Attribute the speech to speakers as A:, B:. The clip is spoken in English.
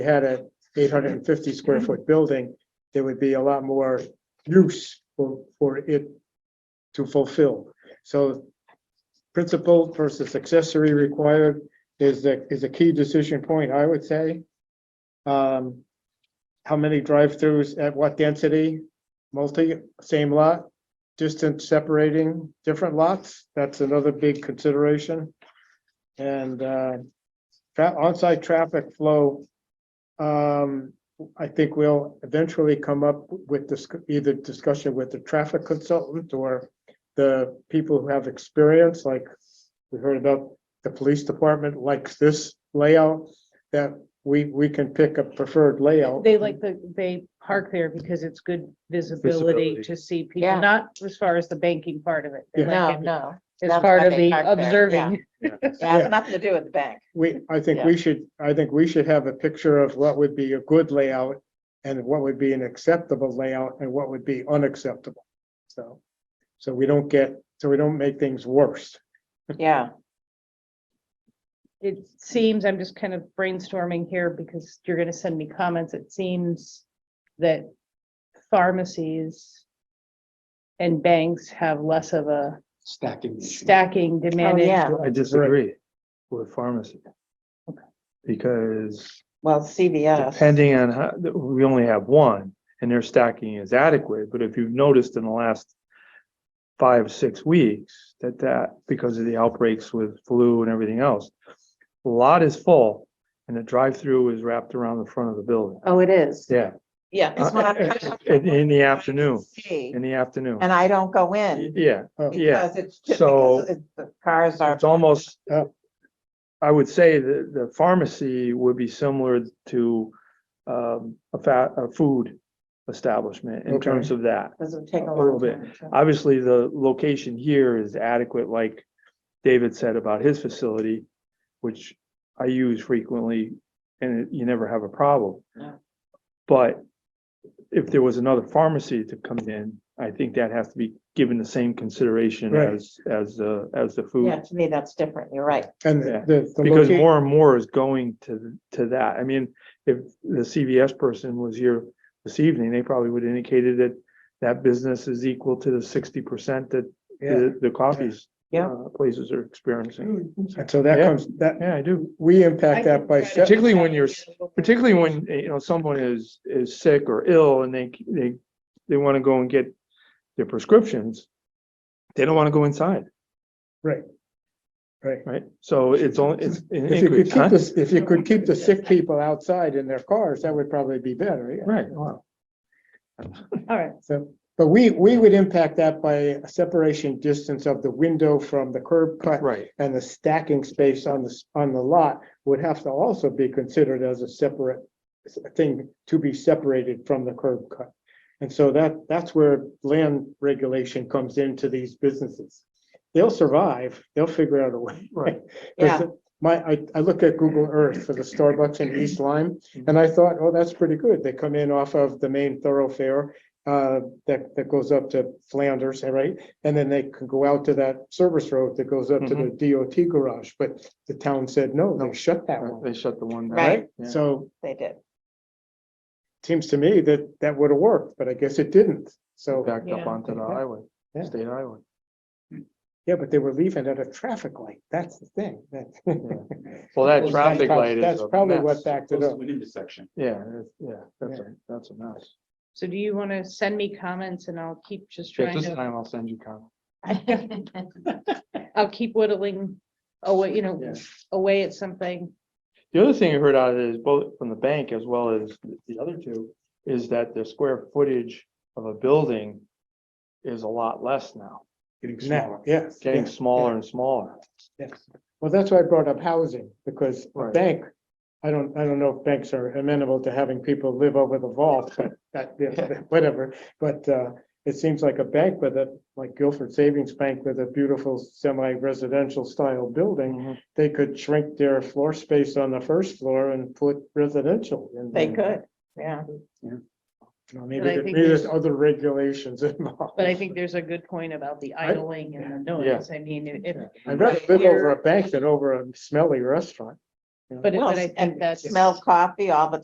A: had an eight hundred and fifty square foot building, there would be a lot more use for, for it to fulfill. So principal versus accessory required is the, is a key decision point, I would say. Um, how many drive-throughs at what density, multi, same lot, distance separating different lots, that's another big consideration. And, uh, tra- onsite traffic flow um, I think we'll eventually come up with this, either discussion with the traffic consultant or the people who have experience, like we heard about the police department likes this layout, that we, we can pick a preferred layout.
B: They like the, they park there because it's good visibility
C: Visibility.
B: to see
D: Yeah.
B: people, not as far as the banking part of it. They
A: Yeah.
D: No,
B: like it
D: no,
B: As
D: that's
B: part
D: why
B: of the
D: they park there,
B: observing.
D: yeah,
A: Yeah.
D: it's nothing to do with the bank.
A: We, I think we should, I think we should have a picture of what would be a good layout and what would be an acceptable layout and what would be unacceptable. So, so we don't get, so we don't make things worse.
D: Yeah, Oh,
B: It seems, I'm just kind of brainstorming here because you're gonna send me comments. It seems that pharmacies and banks have less of a
C: Stacking. issue.
B: stacking demand.
D: Oh, yeah.
C: I disagree with pharmacy. Because
D: well, CVS,
C: depending on how, we only have one and their stacking is adequate, but if you've noticed in the last five, six weeks, that that, because of the outbreaks with flu and everything else, the lot is full and the drive-through is wrapped around the front of the building.
B: Oh, it is.
C: Yeah.
D: yeah. it's what I'm trying to
C: In, in the afternoon,
D: see,
C: in the afternoon.
D: And I don't go in
C: Yeah,
A: Oh.
C: yeah.
D: because it's, ju-
C: so-
D: because it's- the cars are.
C: It's almost, uh,
A: Yeah.
C: I would say that the pharmacy would be similar to um, a fat, a food establishment in
A: Okay.
C: terms of that.
D: Doesn't take a
C: a
D: long
C: little
D: time. to-
C: Obviously, the location here is adequate, like David said about his facility, which I use frequently and you never have a problem.
D: Yeah.
C: But if there was another pharmacy to come in, I think that has to be given the same consideration
A: Right.
C: as, as, uh, as the food.
D: Yeah, to me, that's different. You're right.
A: And
C: Yeah,
A: the. the
C: Because
A: loca-
C: more and more is going to, to that. I mean, if the CVS person was here this evening, they probably would have indicated that that business is equal to the sixty percent that
A: Yeah,
C: the, the coffees
D: Yeah.
C: uh, places are experiencing.
A: and so that
C: Yeah.
A: comes, that,
C: Yeah, I do.
A: we impact that by, se-
C: Particularly when you're, particularly when, you know, someone is, is sick or ill and they, they, they want to go and get their prescriptions. They don't want to go inside,
A: right?
C: right? So it's only, it's an
A: If you could
C: increase,
A: keep
C: huh?
A: this, if you could keep the sick people outside in their cars, that would probably be better, yeah.
C: Right, wow.
B: All right.
A: So, but we, we would impact that by a separation distance of the window from the curb cut.
C: right.
A: And the stacking space on the, s- on the lot would have to also be considered as a separate s- thing to be separated from the curb cut. And so that, that's where land regulation comes into these businesses. They'll survive, they'll figure out a way.
C: Right.
A: Because
D: Yeah.
A: My, I, I looked at Google Earth for the Starbucks in East Lyme,
C: Mm-hmm.
A: and I thought, oh, that's pretty good. They come in off of the main thoroughfare uh, that, that goes up to Flanders, all right? And then they can go out to that service road that goes up to
C: Mm-hmm.
A: the DOT garage, but the town said, no, they shut that one,
C: They shut the one down.
D: Right.
A: right?
C: Yeah.
A: So
D: They did.
A: seems to me that that would have worked, but I guess it didn't. So,
C: backed up
B: Yeah.
C: onto the highway,
A: Yeah.
C: state highway.
A: yeah, but they were leaving at a traffic light. That's the thing. That's
C: Well, that traffic
A: prob-
C: light is.
A: That's
C: a
A: probably what
C: mess.
A: backed it up.
C: Yeah, that's- yeah, that's a, that's a mess.
B: So do you want to send me comments and I'll keep just
C: Yeah,
B: trying
C: this
B: to,
C: time I'll send you comment.
B: I'll keep whittling away, you know,
C: Yeah.
B: away at something.
C: The other thing I heard out of it is both from the bank as well as the other two, is that the square footage of a building is a lot less now,
A: Now, yes.
C: getting
A: yes.
C: smaller and smaller.
A: Yes, well, that's why I brought up housing, because a
C: Right.
A: bank, I don't, I don't know if banks are amenable to having people live over the vault, but that, yeah, whatever. But uh, it seems like a bank with a, like Guilford Savings Bank with a beautiful semi-residential style building,
C: Mm-hmm.
A: they could shrink their floor space on the first floor and put residential in.
D: They
C: Mm.
A: there.
D: could, yeah.
A: You know, Maybe,
B: But I
A: there-
B: think
A: maybe there's
B: there's-
A: other regulations involved.
B: But I think there's a good point about the idling and the noise. I mean, if- if,
A: I'd rather live over a bank than over a smelly restaurant.
B: but it-
D: Well,
B: but I
D: and
B: think that's.
D: Smell coffee all the